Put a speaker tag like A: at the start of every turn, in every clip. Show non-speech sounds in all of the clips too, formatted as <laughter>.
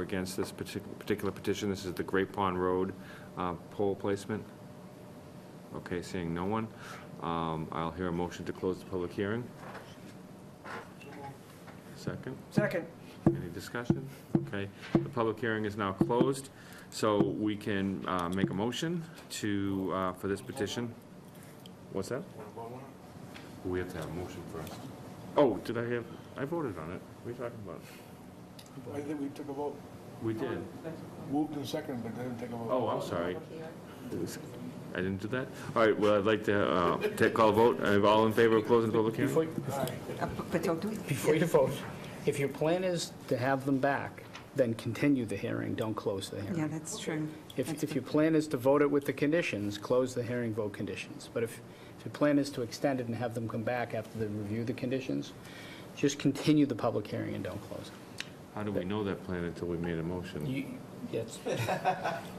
A: against this partic- particular petition. This is the Great Pond Road uh, pole placement. Okay, seeing no one, um, I'll hear a motion to close the public hearing. Second?
B: Second.
A: Any discussion? Okay, the public hearing is now closed, so we can uh, make a motion to, uh, for this petition. What's that? We have to have a motion first. Oh, did I have, I voted on it. What are you talking about?
C: I think we took a vote,
A: We did.
C: moved and seconded, but didn't take a vote.
A: Oh, I'm sorry. I didn't do that? All right, well, I'd like to uh, take, call a vote. Uh, All in favor of closing the public
D: Before,
A: hearing?
B: Uh, But don't do it.
D: before you vote, if your plan is to have them back, then continue the hearing, don't close the
B: Yeah,
D: hearing.
B: that's true.
D: If,
B: That's
D: if
B: good.
D: your plan is to vote it with the conditions, close the hearing, vote conditions. But if, if your plan is to extend it and have them come back after they review the conditions, just continue the public hearing and don't close it.
A: How do we know that plan until we made a motion?
D: You, <laughs> yes.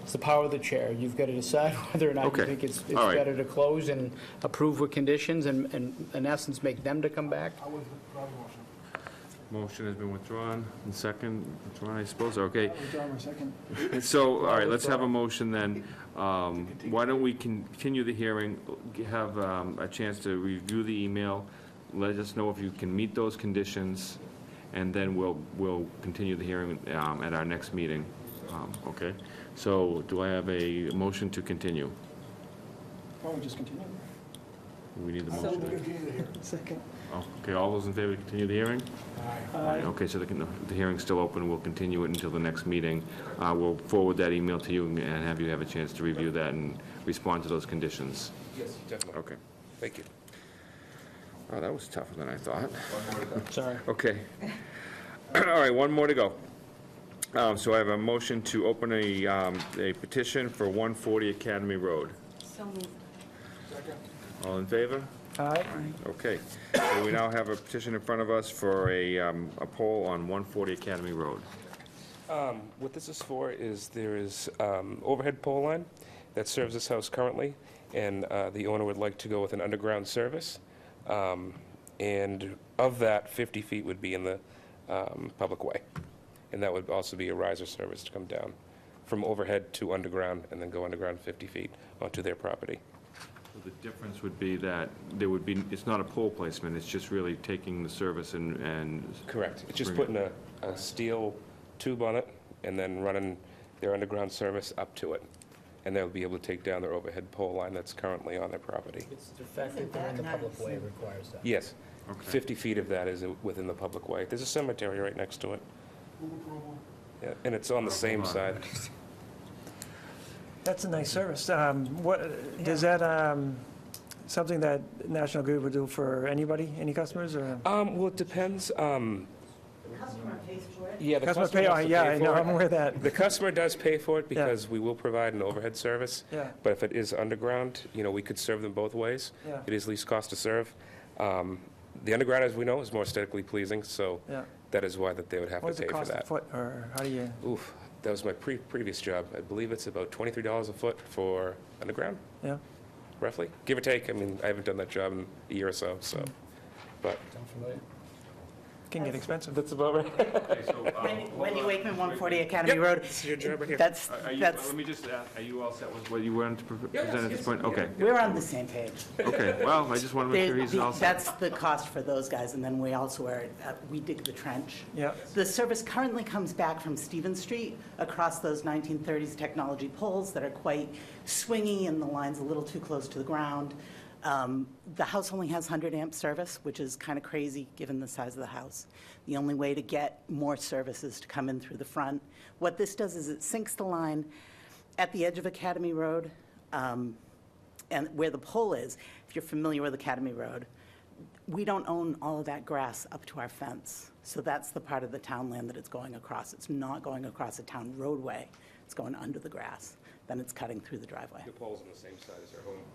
D: It's the power of the chair. You've got to decide <laughs> whether or not
A: Okay.
D: you think it's, it's
A: All right.
D: better to close and approve with conditions and, and in essence, make them to come back.
C: I was withdrawing motion.
A: Motion has been withdrawn, and second, withdrawn, I suppose, okay.
C: I withdraw my second.
A: So, all right, let's have a motion then. Um, Why don't we continue the hearing, have um, a chance to review the email, let us know if you can meet those conditions, and then we'll, we'll continue the hearing um, at our next meeting. Um, Okay? So do I have a motion to continue?
C: Why don't Oh, we just continue?
A: We need the
C: I think we
A: motion.
C: continue here.
B: Second.
A: Oh, Okay, all those in favor, to continue the hearing?
C: Aye.
A: Okay, so the the hearing's still open, we'll continue it until the next meeting. Uh, We'll forward that email to you and have you have a chance to review that and respond to those conditions.
E: Yes, definitely.
A: Okay.
E: Thank you.
A: Oh, that was tougher than I thought.
D: Sorry.
A: Okay. <clears throat> All right, one more to go. Um, So I have a motion to open a um, a petition for 140 Academy Road.
B: So moved.
C: Second.
A: All in favor?
D: All right.
A: Okay. So we now have a petition in front of us for a um, a poll on 140 Academy Road.
E: Um, What this is for is there is um, overhead pole line that serves this house currently, and uh, the owner would like to go with an underground service. Um, And of that, 50 feet would be in the um, public way. And that would also be a riser service to come down from overhead to underground and then go underground 50 feet onto their property.
A: So The difference would be that there would be, it's not a pole placement, it's just really taking the service and, and,
E: Correct. It's just
A: Bring
E: putting a, a steel tube on it and then running their underground service up to it. And they'll be able to take down their overhead pole line that's currently on their property.
D: It's the fact that they're in the public way requires that.
E: Yes,
A: okay.
E: 50 feet of that is within the public way. There's a cemetery right next to it,
C: Move approval.
E: Yeah, and it's on the same
A: Hold
E: side.
A: on.
F: That's a nice service. Um, What, does that, um, something that National Grid would do for anybody, any customers, or?
E: Um, well, it depends, um... The
F: Customer
E: customer
F: pay,
E: pays
F: oh,
E: for it?
F: yeah,
E: Yeah,
F: I
E: the customer has to pay
F: know, I'm
E: for
F: aware
E: <laughs>
F: of that,
E: it. The customer does pay for it
F: Yeah.
E: because we will provide an overhead service,
F: yeah,
E: but if it is underground, you know, we could serve them both ways.
F: yeah,
E: It is least cost to serve. Um, The underground, as we know, is more aesthetically pleasing, so
F: yeah.
E: that is why that they would have to
F: What's
E: pay
F: it
E: for
F: cost a
E: that.
F: foot, or how do you,
E: Oof, that was my pre- previous job. I believe it's about $23 a foot for underground,
F: yeah?
E: roughly, give or take. I mean, I haven't done that job in a year or so, so, but
F: Can get expensive.
E: that's about right.
A: uh,
G: Wendy Wakeman, 140 Academy
E: Yep,
G: Road.
E: This is your job right here.
G: That's,
A: Are- are you-
G: that's,
A: Let me just ask, are you all set with what you wanted to pre-
E: Yes,
A: present at this
E: yes,
A: point? Okay,
G: we're on the same page.
A: okay, well, I just want to make sure
G: There-
A: he's
G: the-
A: all set.
G: That's the cost for those guys, and then we also are, uh, we dig the trench.
E: <laughs>
F: Yeah,
G: The service currently comes back from Stephen Street across those 1930s technology poles that are quite swingy and the line's a little too close to the ground. Um, The house only has 100 amp service, which is kind of crazy given the size of the house. The only way to get more service is to come in through the front. What this does is it sinks the line at the edge of Academy Road um, and where the pole is. If you're familiar with Academy Road, we don't own all of that grass up to our fence. So that's the part of the town land that it's going across. It's not going across a town roadway. It's going under the grass. Then it's cutting through the driveway.
E: The pole's on the same side as our home.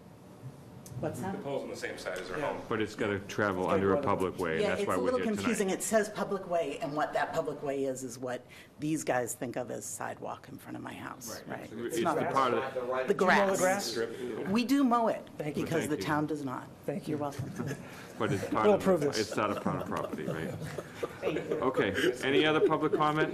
G: What's that?
E: The pole's on the same side as our home.
A: But it's got to travel under a public way, and
G: Yeah,
A: that's
G: it's
A: why
G: a
A: we're
G: little
A: here
G: confusing.
A: tonight.
G: It says public way, and what that public way is, is what these guys think of as sidewalk in front of my house, right?
A: It's the part of, the-
G: The
F: mow the
G: grass. We do mow it
F: Thank you.
G: because the
A: Thank you.
G: town does not.
F: Thank
G: You're welcome.
A: but it's part
F: We'll
A: of,
F: approve
A: the-
F: this.
A: it's not a part of property, right? Okay, any other public comment?